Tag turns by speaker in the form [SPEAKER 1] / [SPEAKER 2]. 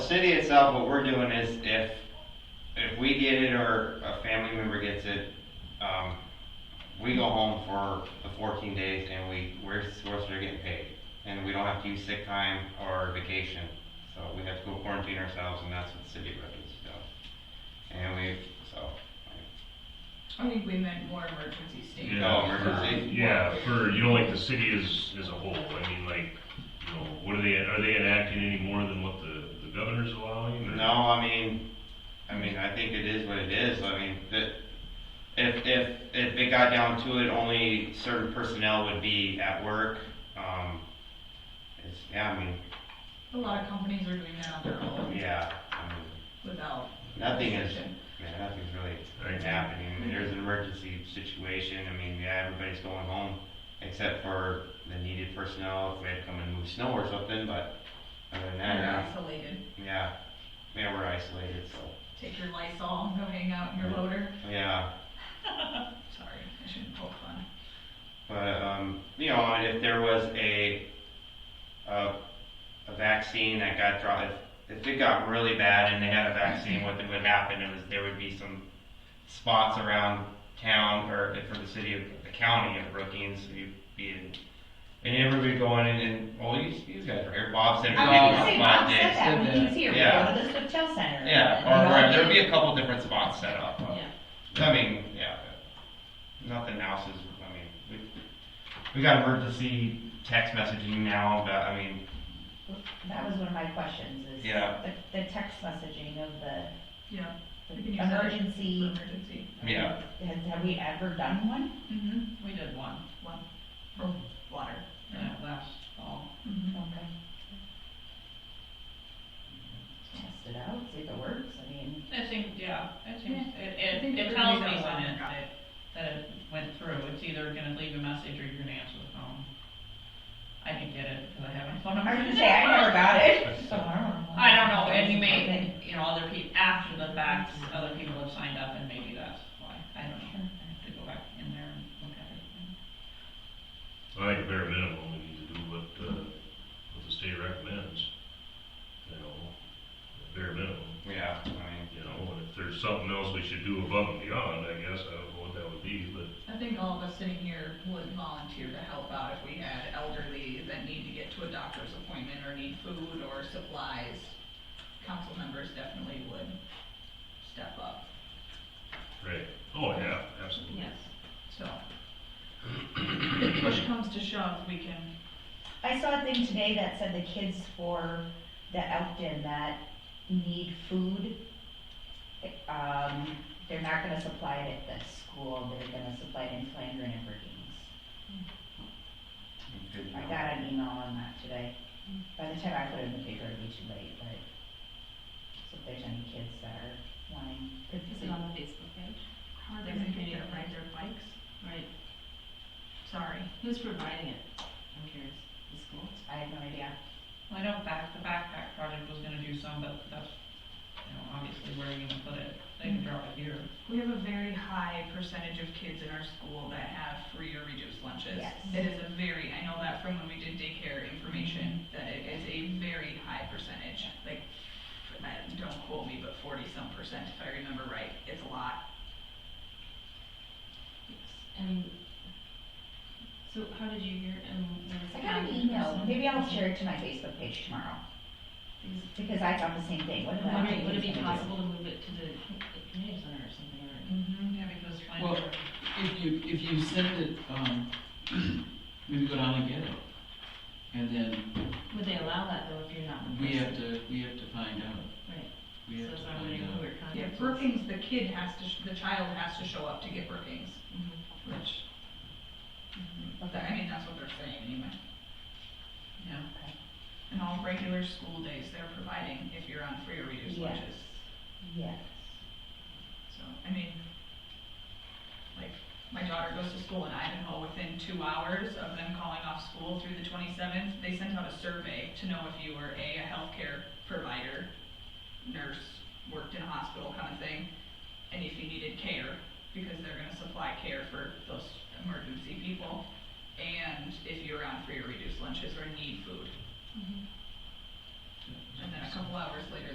[SPEAKER 1] city itself, what we're doing is if, if we get it or a family member gets it, um, we go home for the fourteen days and we, we're, supposed to get paid. And we don't have to use sick time or vacation, so we have to go quarantine ourselves and that's what the city records does. And we, so,
[SPEAKER 2] I think we meant more emergency state.
[SPEAKER 1] no Oh, emergency.
[SPEAKER 3] Uh, Yeah, for, you know, like the city as, as a whole, I mean, like, you know, what are they, are they enacting any more than what the, the governor's allowing? or-
[SPEAKER 1] No, I mean, I mean, I think it is what it is, I mean, that, if, if, if it got down to it, only certain personnel would be at work, um, it's, yeah, I mean,
[SPEAKER 2] A lot of companies are doing that on their own
[SPEAKER 1] yeah, I mean,
[SPEAKER 2] without.
[SPEAKER 1] nothing is,
[SPEAKER 2] restriction.
[SPEAKER 1] yeah, nothing's really
[SPEAKER 3] Right.
[SPEAKER 1] happening, I mean, there's an emergency situation, I mean, yeah, everybody's going home, except for the needed personnel, if they had to come and move snow or something, but, other than that,
[SPEAKER 2] They're
[SPEAKER 1] yeah,
[SPEAKER 2] isolated. yeah.
[SPEAKER 1] yeah, yeah, we're isolated, so,
[SPEAKER 2] Take your Lysol and go hang out in your loader.
[SPEAKER 1] yeah.
[SPEAKER 2] Sorry, I shouldn't poke fun.
[SPEAKER 1] But um, you know, and if there was a a, a vaccine that got dropped, if, if it got really bad and they had a vaccine, what would happen is there would be some spots around town or for the city of the county of Brookings, you'd be in. And everybody would go in and, and well, you, you guys are here. Bob said
[SPEAKER 4] I was
[SPEAKER 1] Bob
[SPEAKER 4] gonna say,
[SPEAKER 1] spot
[SPEAKER 4] Bob said
[SPEAKER 1] did.
[SPEAKER 4] that when he was here, we go
[SPEAKER 1] Yeah.
[SPEAKER 4] to the hotel center.
[SPEAKER 1] Yeah, or right, there'd be a couple different spots set up. uh,
[SPEAKER 4] Yeah.
[SPEAKER 1] I mean, yeah, nothing else is, I mean, we, we got emergency text messaging now, but I mean,
[SPEAKER 4] That was one of my questions, is
[SPEAKER 1] Yeah.
[SPEAKER 4] the, the text messaging of the,
[SPEAKER 2] Yeah,
[SPEAKER 4] the
[SPEAKER 2] We can use that.
[SPEAKER 4] emergency.
[SPEAKER 2] emergency.
[SPEAKER 1] Yeah.
[SPEAKER 4] Have, have we ever done one?
[SPEAKER 2] Mm-hmm, we did one, one, for water.
[SPEAKER 5] Yeah, last fall.
[SPEAKER 2] Mhm.
[SPEAKER 4] Okay. Test it out, see if it works, I mean,
[SPEAKER 5] I think, yeah, I think,
[SPEAKER 2] Yeah. I
[SPEAKER 5] it,
[SPEAKER 2] think everybody's
[SPEAKER 5] it, it tells me
[SPEAKER 2] outside
[SPEAKER 5] when
[SPEAKER 2] and
[SPEAKER 5] it,
[SPEAKER 2] got
[SPEAKER 5] that, that it went through, it's either gonna leave a message or you're gonna answer the phone. I can get it, cause I have my phone number.
[SPEAKER 4] I was gonna say, I never got it, so I don't know.
[SPEAKER 5] I don't know, and you may,
[SPEAKER 4] Okay.
[SPEAKER 5] you know, other people, after the fact, other people have signed up and maybe that's why, I don't know. I have to go back in there and look at everything.
[SPEAKER 3] I think bare minimum, we need to do what, uh, what the state recommends, you know, bare minimum,
[SPEAKER 1] yeah, I mean,
[SPEAKER 3] you know, and if there's something else we should do above and beyond, I guess, I don't know what that would be, but
[SPEAKER 2] I think all of us sitting here would volunteer to help out if we had elderly that need to get to a doctor's appointment or need food or supplies. Council members definitely would step up,
[SPEAKER 3] Right. Oh, yeah, absolutely.
[SPEAKER 2] yes, so. If push comes to shove, we can,
[SPEAKER 4] I saw a thing today that said the kids for the Elkton that need food, um, they're not gonna supply it at the school, they're gonna supply it in Flandern and Brookings.
[SPEAKER 1] good to
[SPEAKER 4] I
[SPEAKER 1] know.
[SPEAKER 4] got an email on that today. By the time I put it in the paper, it'd be too late, but, so if there's any kids that are wanting.
[SPEAKER 6] Is it on the Facebook page?
[SPEAKER 2] how are they gonna get there, ride their bikes?
[SPEAKER 6] Right,
[SPEAKER 2] Sorry,
[SPEAKER 6] who's providing it? I'm curious, the school?
[SPEAKER 4] I have no idea.
[SPEAKER 5] Well, I know back, the backpack project was gonna do some, but that's, you know, obviously where you're gonna put it, they can drop it here.
[SPEAKER 2] we have a very high percentage of kids in our school that have free or reduced lunches.
[SPEAKER 4] Yes.
[SPEAKER 2] It is a very, I know that from when we did daycare information, that it is a very high percentage, like, I- don't quote me, but forty-some percent, if I remember right, it's a lot.
[SPEAKER 6] I mean, so how did you hear, I mean, there was.
[SPEAKER 4] I got an
[SPEAKER 6] contact
[SPEAKER 4] email,
[SPEAKER 6] person?
[SPEAKER 4] maybe I'll share it to my Facebook page tomorrow,
[SPEAKER 6] Is-
[SPEAKER 4] because I thought the same thing, what did I
[SPEAKER 6] Would
[SPEAKER 4] think
[SPEAKER 6] it, would it be
[SPEAKER 4] was gonna do?
[SPEAKER 6] possible to move it to the the community center or something, or?
[SPEAKER 2] Mm-hmm.
[SPEAKER 5] Yeah, because find
[SPEAKER 7] Well,
[SPEAKER 5] out.
[SPEAKER 7] If you, if you send it, um, maybe go down and get it. And then
[SPEAKER 6] Would they allow that though if you're not in
[SPEAKER 7] we have
[SPEAKER 6] person?
[SPEAKER 7] to, we have to find out.
[SPEAKER 6] Right.
[SPEAKER 7] We have
[SPEAKER 6] So
[SPEAKER 7] to
[SPEAKER 6] if I'm wondering
[SPEAKER 7] find
[SPEAKER 6] who
[SPEAKER 7] out.
[SPEAKER 6] we're contacting.
[SPEAKER 2] Yeah, Brookings, the kid has to, sh- the child has to show up to get Brookings,
[SPEAKER 6] Mhm.
[SPEAKER 2] which, but that- I mean, that's what they're saying anyway. Yeah.
[SPEAKER 4] Okay.
[SPEAKER 2] And all regular school days, they're providing if you're on free or reduced
[SPEAKER 4] Yes.
[SPEAKER 2] lunches.
[SPEAKER 4] Yes.
[SPEAKER 2] So, I mean, like, my daughter goes to school in Idaho, within two hours of them calling off school through the twenty-seventh, they sent out a survey to know if you were A, a healthcare provider, nurse, worked in a hospital kind of thing, and if you needed care, because they're gonna supply care for those emergency people, and if you're on free or reduced lunches or need food. And then a couple hours later,